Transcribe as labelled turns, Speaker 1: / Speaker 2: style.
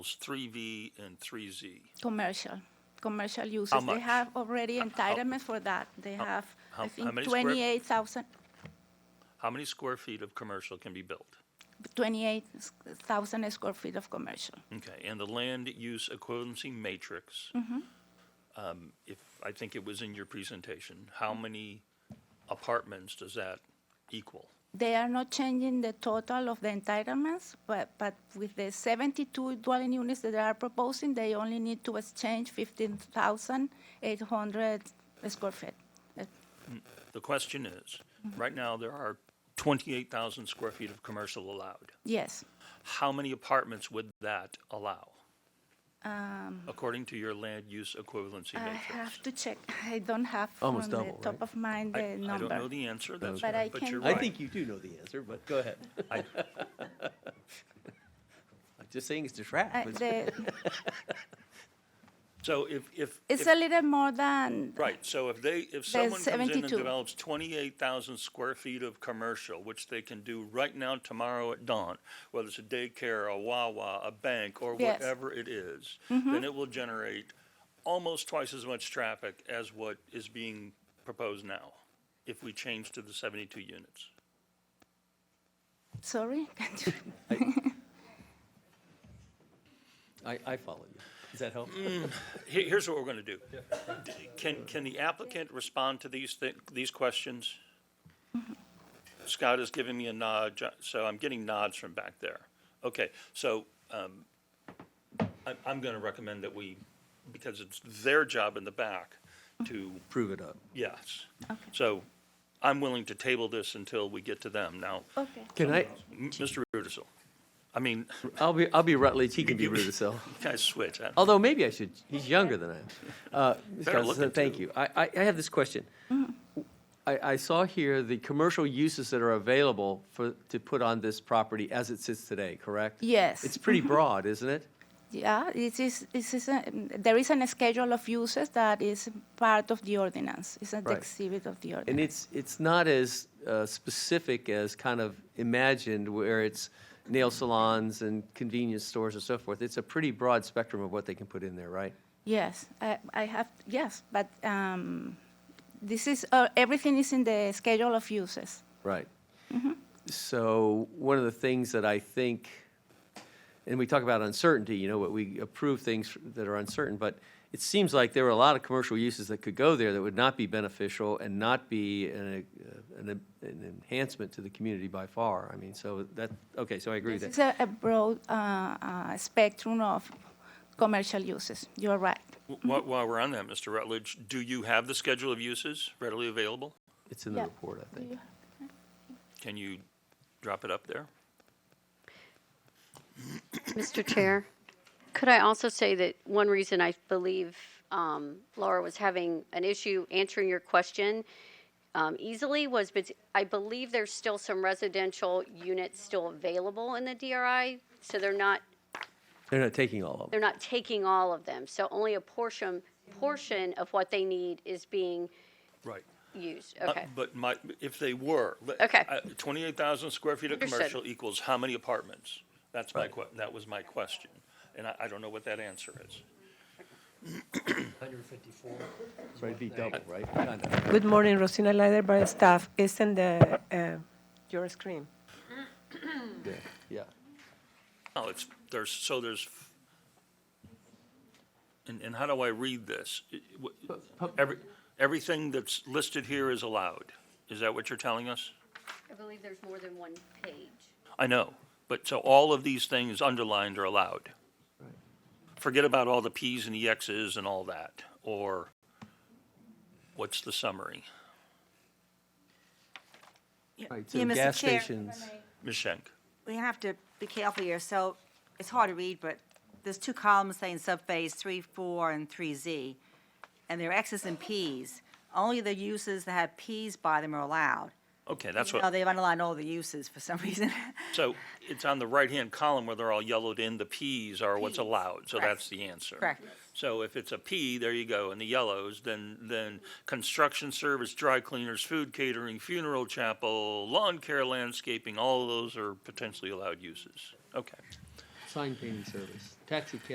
Speaker 1: three V and three Z.
Speaker 2: Commercial, commercial uses.
Speaker 1: much?
Speaker 2: They have already entitlements for that. They have,
Speaker 1: how- how
Speaker 2: I think,
Speaker 1: many square-
Speaker 2: 28,000,
Speaker 1: How many square feet of commercial can be built?
Speaker 2: 28,000 square feet of commercial.
Speaker 1: Okay, and the land use equivalency matrix.
Speaker 2: Mm-hmm.
Speaker 1: um, If, I think it was in your presentation, how many apartments does that equal?
Speaker 2: They are not changing the total of the entitlements, but, but with the 72 dwelling units that they are proposing, they only need to exchange 15,800 square feet. Uh,
Speaker 1: The question is,
Speaker 2: Mm-hmm.
Speaker 1: right now, there are twenty-eight thousand square feet of commercial allowed.
Speaker 2: Yes,
Speaker 1: How many apartments would that allow,
Speaker 2: Um,
Speaker 1: according to your land use equivalency
Speaker 2: I
Speaker 1: matrix?
Speaker 2: have to check. I don't have from
Speaker 3: Almost
Speaker 2: the
Speaker 3: double,
Speaker 2: top
Speaker 3: right?
Speaker 2: of mind
Speaker 1: I-
Speaker 2: the
Speaker 1: I don't know
Speaker 2: number.
Speaker 1: the answer, that's,
Speaker 2: But I
Speaker 1: but
Speaker 2: can-
Speaker 1: you're
Speaker 3: I
Speaker 1: right.
Speaker 3: think you do know the answer, but go ahead.
Speaker 1: I-
Speaker 3: I'm just saying it's a trap.
Speaker 2: Uh,
Speaker 3: It's-
Speaker 2: the-
Speaker 1: So if, if.
Speaker 2: It's
Speaker 1: if-
Speaker 2: a little more than,
Speaker 1: Right, so if they, if someone comes in and
Speaker 2: 72.
Speaker 1: develops twenty-eight thousand square feet of commercial, which they can do right now, tomorrow at dawn, whether it's a daycare, a Wawa, a bank, or
Speaker 2: Yes.
Speaker 1: whatever it is, then it will generate almost twice as much traffic as what is being proposed now, if we change to the seventy-two units.
Speaker 2: sorry, can't you-
Speaker 3: I, I follow you. Does that help?
Speaker 1: Here, here's what we're gonna do. Can, can the applicant respond to these thi- these questions? Scott is giving me a nod, Jo- so I'm getting nods from back there. Okay, so, um, I'm, I'm gonna recommend that we, because it's their job in the back to,
Speaker 3: Prove it up.
Speaker 1: yes. So I'm willing to table this until we get to them. Now,
Speaker 2: okay.
Speaker 3: Can I,
Speaker 1: M- Mr. Rudisil, I mean,
Speaker 3: I'll be, I'll be Rutledge, he can be Rudisill.
Speaker 1: you guys switch. huh?
Speaker 3: Although maybe I should, he's younger than I am. Uh, Ms.
Speaker 1: Better
Speaker 3: Johnson,
Speaker 1: looking,
Speaker 3: Thank
Speaker 1: too.
Speaker 3: you. I, I, I have this question. I, I saw here the commercial uses that are available for, to put on this property as it sits today, correct?
Speaker 2: Yes.
Speaker 3: It's pretty broad, isn't it?
Speaker 2: Yeah, it is, it is, a- there is a schedule of uses that is part of the ordinance. It's an
Speaker 3: Right.
Speaker 2: exhibit of the
Speaker 3: And
Speaker 2: ordinance.
Speaker 3: it's, it's not as uh, specific as kind of imagined where it's nail salons and convenience stores and so forth. It's a pretty broad spectrum of what they can put in there, right?
Speaker 2: Yes, I, I have, yes, but um, this is, uh, everything is in the schedule of uses.
Speaker 3: Right. So one of the things that I think, and we talk about uncertainty, you know, what we approve things that are uncertain, but it seems like there were a lot of commercial uses that could go there that would not be beneficial and not be an, uh, an an enhancement to the community by far. I mean, so that, okay, so I agree with
Speaker 2: It's
Speaker 3: that.
Speaker 2: a a broad uh, uh, spectrum of commercial uses. You're right.
Speaker 1: Wh- While, while we're on that, Mr. Rutledge, do you have the schedule of uses readily available?
Speaker 3: It's in the
Speaker 2: Yeah.
Speaker 3: report, I think.
Speaker 1: Can you drop it up there?
Speaker 4: Mr. Chair, could I also say that one reason I believe um, Laura was having an issue answering your question um, easily was, but I believe there's still some residential units still available in the DRI, so they're not,
Speaker 3: They're not taking all of them.
Speaker 4: they're not taking all of them. So only a portion, portion of what they need is being
Speaker 1: Right.
Speaker 4: used,
Speaker 1: Uh,
Speaker 4: okay?
Speaker 1: But my, if they were. let-
Speaker 4: Okay.
Speaker 1: uh, 28,000 square feet of
Speaker 4: Understood.
Speaker 1: commercial equals how many apartments? That's my, que- that was my question. And I, I don't know what that answer is.
Speaker 5: 154.
Speaker 3: Right, it'd be double, right? Kind of.
Speaker 6: Good morning, Rosina Leider by staff. It's in the, uh, your screen.
Speaker 3: Yeah, Yeah.
Speaker 1: Oh, it's, there's, so there's, and, and how do I read this? It- wh- Every, everything that's listed here is allowed. Is that what you're telling us?
Speaker 4: I believe there's more than one page.
Speaker 1: I know, but so all of these things underlined are allowed. Forget about all the Ps and the Xs and all that, or what's the summary?
Speaker 3: Right,
Speaker 7: Yeah,
Speaker 3: so
Speaker 7: Mr.
Speaker 3: gas
Speaker 7: Chair.
Speaker 3: stations,
Speaker 1: Ms. Schenk,
Speaker 7: We have to be careful here, so it's hard to read, but there's two columns saying subphase three, four, and three Z, and they're X's and P's. Only the uses that have P's by them are allowed.
Speaker 1: okay, that's
Speaker 7: No,
Speaker 1: what,
Speaker 7: they've underlined all the uses for some reason.
Speaker 1: so it's on the right-hand column where they're all yellowed in, the Ps are what's
Speaker 7: Ps,
Speaker 1: allowed, so
Speaker 7: correct.
Speaker 1: that's the answer.
Speaker 7: Correct.
Speaker 1: So if it's a P, there you go, in the yellows, then, then construction service, dry cleaners, food catering, funeral chapel, lawn care, landscaping, all of those are potentially allowed uses. Okay.
Speaker 3: sign painting service, taxi cab